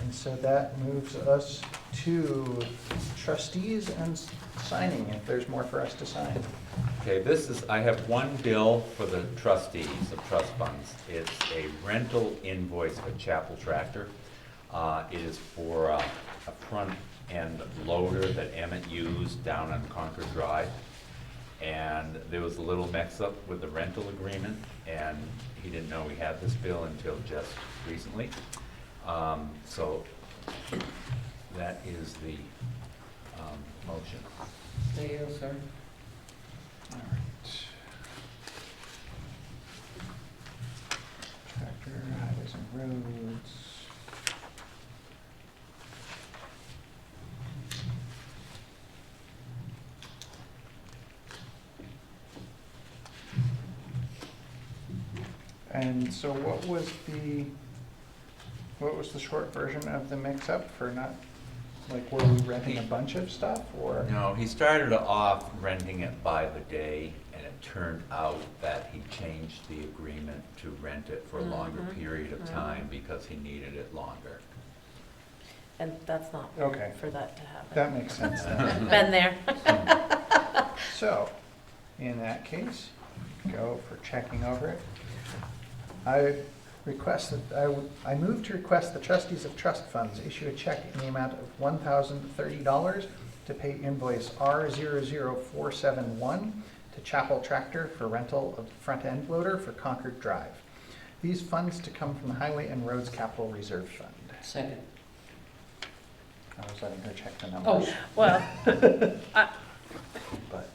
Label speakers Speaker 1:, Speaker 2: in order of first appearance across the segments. Speaker 1: And so that moves us to trustees and signing, if there's more for us to sign.
Speaker 2: Okay, this is, I have one bill for the trustees of trust funds. It's a rental invoice for Chapel Tractor. Uh, It is for uh, a front-end loader that Emmett used down on Concord Drive. And there was a little mix-up with the rental agreement, and he didn't know we had this bill until just recently. Um, So that is the um, motion.
Speaker 3: There you go, sir.
Speaker 1: All right. Tractor, highways and roads. And so what was the, what was the short version of the mix-up for not, like, were we renting a bunch of stuff, or?
Speaker 2: No, he started off renting it by the day, and it turned out that he changed the agreement to rent it for a longer
Speaker 3: Mhm.
Speaker 2: period of
Speaker 3: Mhm.
Speaker 2: time because he needed it longer.
Speaker 4: And that's not
Speaker 1: Okay,
Speaker 4: for that to happen.
Speaker 1: that makes sense then.
Speaker 4: Been there.
Speaker 1: So, in that case, go for checking over it. I request that, I, would- I move to request the trustees of trust funds issue a check in the amount of one thousand thirty dollars to pay invoice R zero zero four seven one to Chapel Tractor for rental of front end loader for Concord Drive. These funds to come from the Highway and Roads Capital Reserve Fund.
Speaker 3: Second.
Speaker 1: I was letting her check the
Speaker 3: Oh,
Speaker 1: numbers,
Speaker 4: Well,
Speaker 1: but.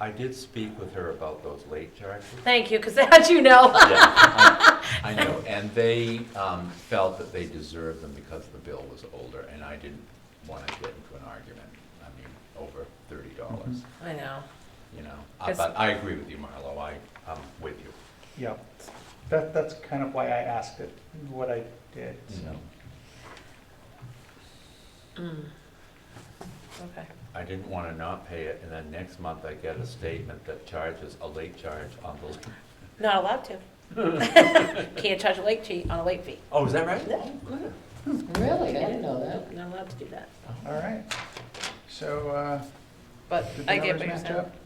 Speaker 2: I did speak with her about those late charges.
Speaker 4: thank you, because how'd you know?
Speaker 2: Yeah, I I know, and they um, felt that they deserved them because the bill was older, and I didn't want to get into an argument, I mean, over thirty dollars,
Speaker 4: I know.
Speaker 2: you know? Uh,
Speaker 4: Yes.
Speaker 2: But I agree with you, Marlo, I, I'm with you.
Speaker 1: Yep. That, that's kind of why I asked it, what I did, so.
Speaker 4: Mm. Okay.
Speaker 2: I didn't want to not pay it, and then next month I get a statement that charges a late charge on the,
Speaker 4: Not allowed to. Can't charge a late fee on a late fee.
Speaker 2: oh, is that right?
Speaker 4: Good.
Speaker 3: Really? I didn't know that.
Speaker 4: Not allowed to do that.
Speaker 1: All right. So, uh,
Speaker 4: But
Speaker 1: Did the
Speaker 4: I get
Speaker 1: numbers
Speaker 4: what you're
Speaker 1: match
Speaker 4: saying.
Speaker 1: up?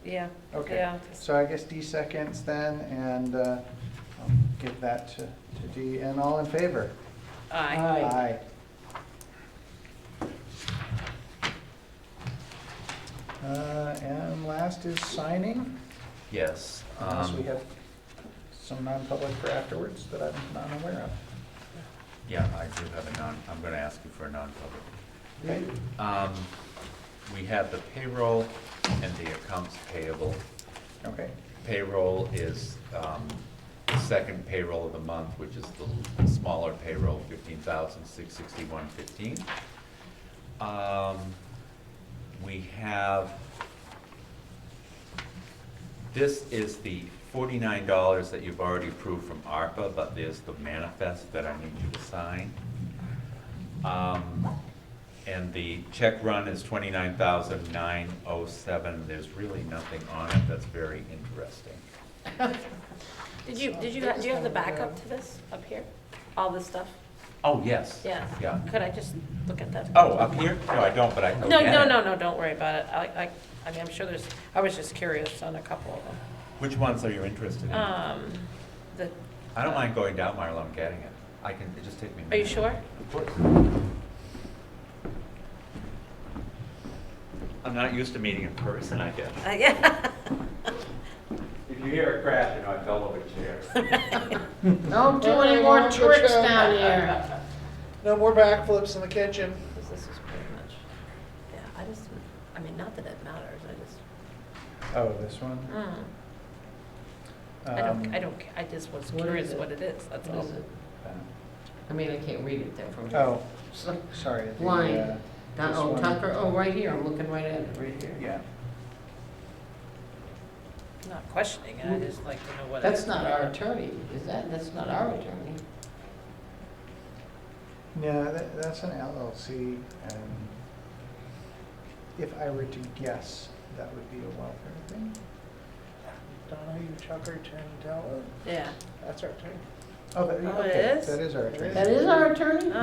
Speaker 4: Yeah,
Speaker 1: okay.
Speaker 4: yeah.
Speaker 1: So I guess D seconds then, and uh, I'll give that to to D. And all in favor?
Speaker 4: Aye.
Speaker 3: Aye.
Speaker 1: Uh, And last is signing,
Speaker 2: Yes.
Speaker 1: unless we
Speaker 2: um,
Speaker 1: have some non-public for afterwards that I'm not aware of.
Speaker 2: Yeah, I do have a non, I'm going to ask you for a non-public.
Speaker 1: Okay.
Speaker 2: Um, We have the payroll and the accounts payable.
Speaker 1: Okay,
Speaker 2: Payroll is um, the second payroll of the month, which is the smaller payroll, fifteen thousand six sixty-one fifteen. Um, We have, this is the forty-nine dollars that you've already approved from ARPA, but there's the manifest that I need you to sign. Um, And the check run is twenty-nine thousand nine oh seven, there's really nothing on it that's very interesting.
Speaker 4: Did you, did you, do you have the backup to this up here? All this stuff?
Speaker 2: Oh, yes.
Speaker 4: Yeah.
Speaker 2: Yeah.
Speaker 4: Could I just look at that?
Speaker 2: Oh, up here? No, I don't, but I can
Speaker 4: No,
Speaker 2: get
Speaker 4: no,
Speaker 2: it.
Speaker 4: no, no, don't worry about it. I, I, I mean, I'm sure there's, I was just curious on a couple of them.
Speaker 2: Which ones are you interested in? I
Speaker 4: Um, the,
Speaker 2: don't mind going down, Marlo, I'm getting it. I can, it just take me a
Speaker 4: are you
Speaker 2: minute.
Speaker 4: sure?
Speaker 2: Of course. I'm not used to meeting in person, I guess.
Speaker 4: Uh, yeah.
Speaker 2: If you hear a crash, you know, I fell over a chair.
Speaker 5: Don't do any more tricks down here.
Speaker 1: No more backflips in the kitchen.
Speaker 4: Because this is pretty much, yeah, I just, I mean, not that it matters, I just,
Speaker 1: Oh, this one?
Speaker 4: mm, I
Speaker 1: Um,
Speaker 4: don't, I don't, ca- I just was
Speaker 3: What is
Speaker 4: curious
Speaker 3: it?
Speaker 4: what it is, that's
Speaker 3: What
Speaker 4: all.
Speaker 3: is it?
Speaker 1: uh,
Speaker 5: I mean, I can't read it there from here.
Speaker 1: Oh,
Speaker 5: So-
Speaker 1: sorry. the,
Speaker 5: Blind.
Speaker 1: uh,
Speaker 5: Down-
Speaker 1: this
Speaker 5: Oh,
Speaker 1: one.
Speaker 5: Tucker, oh, right here, I'm looking right at it, right here.
Speaker 1: Yeah.
Speaker 4: I'm Not questioning it, I just like to know what it is.
Speaker 5: That's not our attorney, is that? That's not our attorney.
Speaker 1: No, that, that's an LLC, and if I were to guess, that would be a welfare thing.
Speaker 6: Donahue, Tucker, Tarantella,
Speaker 4: Yeah.
Speaker 6: that's our turn.
Speaker 1: Oh, that,
Speaker 4: Oh, it
Speaker 1: okay,
Speaker 4: is?
Speaker 1: that is our attorney.
Speaker 5: That is our attorney?